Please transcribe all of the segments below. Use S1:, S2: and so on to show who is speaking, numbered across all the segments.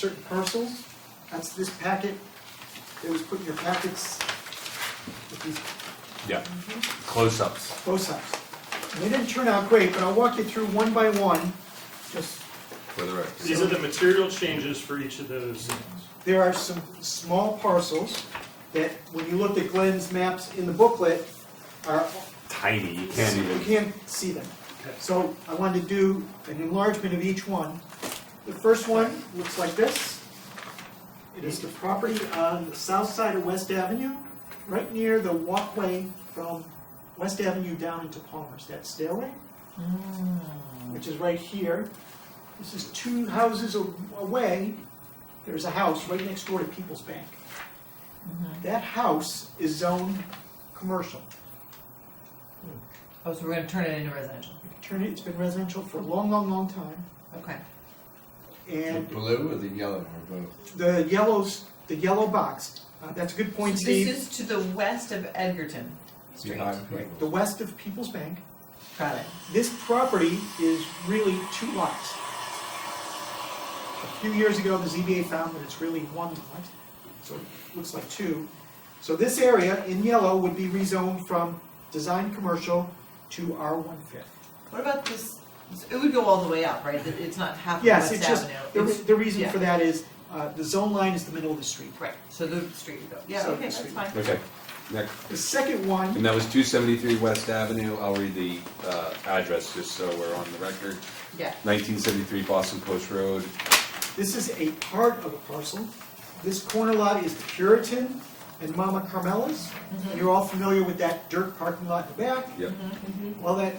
S1: certain parcels. That's this packet that was put in your packets with these
S2: Yeah, close-ups.
S1: both sides. And they didn't turn out great, but I'll walk you through one by one. Just,
S2: For the record.
S3: These are the material changes for each of those zones.
S1: there are some small parcels that, when you looked at Glenn's maps in the booklet, are
S2: Tiny, you can't
S1: You
S2: even,
S1: can't see them. So I wanted to do an enlargement of each one. The first one looks like this. It is the property on the south side of West Avenue, right near the walkway from West Avenue down into Palmer's, that stairway,
S4: Oh,
S1: which is right here. This is two houses a- away, there's a house right next door to People's Bank. That house is zoned commercial.
S4: Oh, so we're gonna turn it into residential,
S1: Turn it, it's been residential for a long, long, long time.
S4: okay.
S1: And
S5: blue or the yellow or both?
S1: the yellows, the yellow box, uh, that's a good point,
S4: So this
S1: Steve.
S4: is to the west of Edgerton Street.
S5: Behind
S1: Right, The
S5: people.
S1: west of People's Bank.
S4: Got it.
S1: This property is really two lots. A few years ago, the ZBA found that it's really one lot, so it looks like two. So this area in yellow would be rezoned from design commercial to R one fifth.
S4: What about this, it would go all the way up, right? That It's not half of
S1: Yes,
S4: West
S1: it's just,
S4: Avenue.
S1: the, re-
S4: It's-
S1: the reason
S4: yeah.
S1: for that is, uh, the zone line is the middle of the street.
S4: Right, so the street would go, yeah,
S1: So
S4: okay,
S1: the
S4: that's
S1: street.
S4: fine.
S2: okay, next.
S1: The second one
S2: And that was two seventy-three West Avenue, I'll read the, uh, address just so we're on the record.
S4: Yeah,
S2: Nineteen seventy-three Boston Post Road,
S1: This is a part of a parcel. This corner lot is the Puritan and Mama Carmella's. You're all familiar with that dirt parking lot in the back.
S2: yep,
S1: Well, that,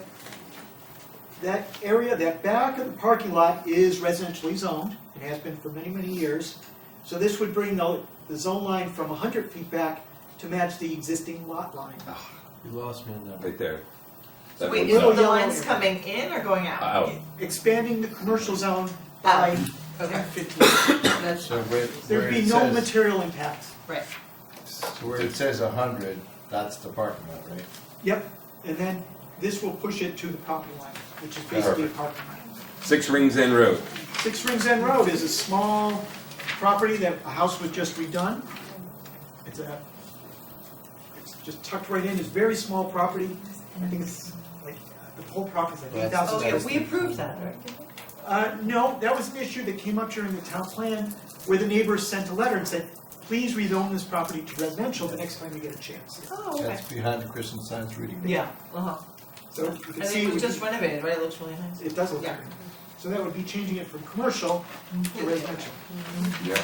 S1: that area, that back of the parking lot is residentially zoned. It has been for many, many years. So this would bring the, the zone line from hundred feet back to match the existing lot line.
S5: You lost me on that.
S2: right there.
S4: so
S2: That
S4: wait,
S2: one's
S4: is
S1: little
S2: up.
S4: the
S1: yellow
S4: lines
S1: area.
S4: coming in or going out?
S2: Out.
S1: Expanding the commercial zone by
S4: Okay,
S1: fifteen.
S4: that's,
S5: So where, where
S1: There'd be
S5: it
S1: no
S5: says,
S1: material impact.
S4: right,
S5: so where it says hundred, that's the parking lot, right?
S1: Yep, and then this will push it to the property line, which is basically a
S2: Perfect.
S1: parking lot.
S2: Six Rings End Road,
S1: Six Rings End Road is a small property that a house was just redone. It's a, it's just tucked right in, it's very small property. I think it's like, the whole property's like eight
S5: That's-
S1: thousand
S4: oh yeah,
S1: square
S5: that's-
S4: we approved that, right?
S1: uh, no, that was an issue that came up during the town plan, where the neighbors sent a letter and said, please rezone this property to residential the next time you get a chance.
S4: Oh, okay,
S5: That's behind the Christian Science Reading. Room.
S4: yeah, uh-huh,
S1: So you can
S4: and
S1: see.
S4: it was
S1: we-
S4: just renovated, right, it looks really nice.
S1: It does look
S4: Yeah.
S1: different. So that would be changing it from commercial to residential.
S2: yeah.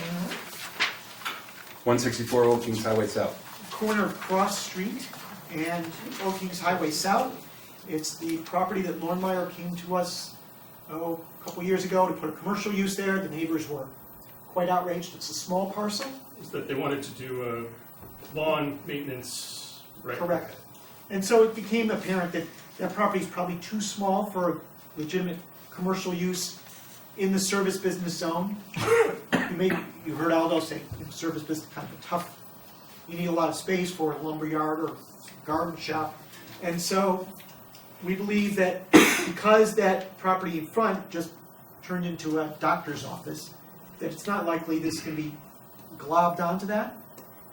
S2: One sixty-four Old Kings Highway South,
S1: Corner of Cross Street and Old Kings Highway South. It's the property that Lornemeyer came to us, oh, a couple years ago to put a commercial use there. The neighbors were quite outraged. It's a small parcel,
S3: Is that they wanted to do a lawn maintenance, right?
S1: correct? And so it became apparent that that property is probably too small for legitimate commercial use in the service business zone. You may, you heard Aldo say, you know, service business kind of a tough, you need a lot of space for a lumberyard or garden shop. And so we believe that because that property in front just turned into a doctor's office, that it's not likely this can be globbed onto that.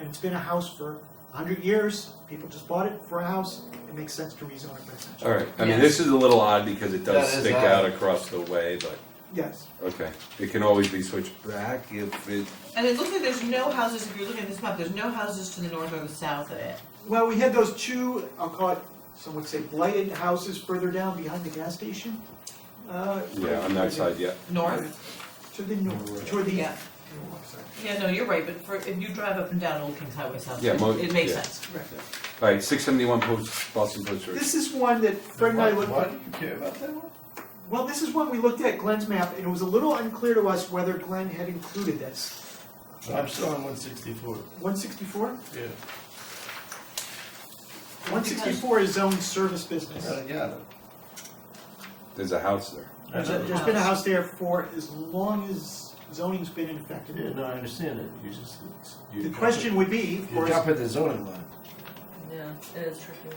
S1: And it's been a house for a hundred years, people just bought it for a house, it makes sense to rezone it residential.
S2: alright, I mean,
S4: Yeah.
S2: this is a little odd because it does
S5: That is
S2: stick
S5: odd.
S2: out across the way, but,
S1: Yes,
S2: okay. It can always be switched back if it,
S4: And it looks like there's no houses, if you're looking at this map, there's no houses to the north or the south of it.
S1: well, we had those two, I'll call it, some would say blighted houses further down behind the gas station. Uh,
S2: yeah, on that side, yeah.
S4: North?
S1: To the north, toward the.
S4: Yeah.
S1: Oh, I'm sorry.
S4: Yeah, no, you're right, but for, if you drive up and down Old Kings Highway South,
S2: Yeah,
S4: it
S2: mo-
S4: it makes
S2: yeah.
S4: sense.
S1: Right.
S2: Alright, six seventy-one Post, Boston Post Road.
S1: This is one that Fred and I
S5: Why-
S1: looked
S5: Why
S1: at.
S5: do you care about that one?
S1: Well, this is one we looked at Glenn's map, and it was a little unclear to us whether Glenn had included this.
S5: I'm still on one sixty-four.
S1: One sixty-four?
S5: Yeah.
S1: One sixty-four is zoned service business.
S5: Yeah.
S2: There's a house there.
S1: There's a- there's been a house there for as long as zoning's been in effect.
S5: Yeah, no, I understand it, you just. you-
S1: The question would be, of
S5: You're
S1: course,
S5: jumping the zoning line,
S4: Yeah, it is tricky.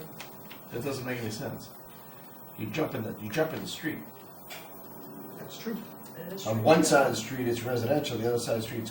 S5: that doesn't make any sense. You jump in the, you jump in the street.
S1: that's true.
S5: On one side of the street, it's residential, the other side of the street, it's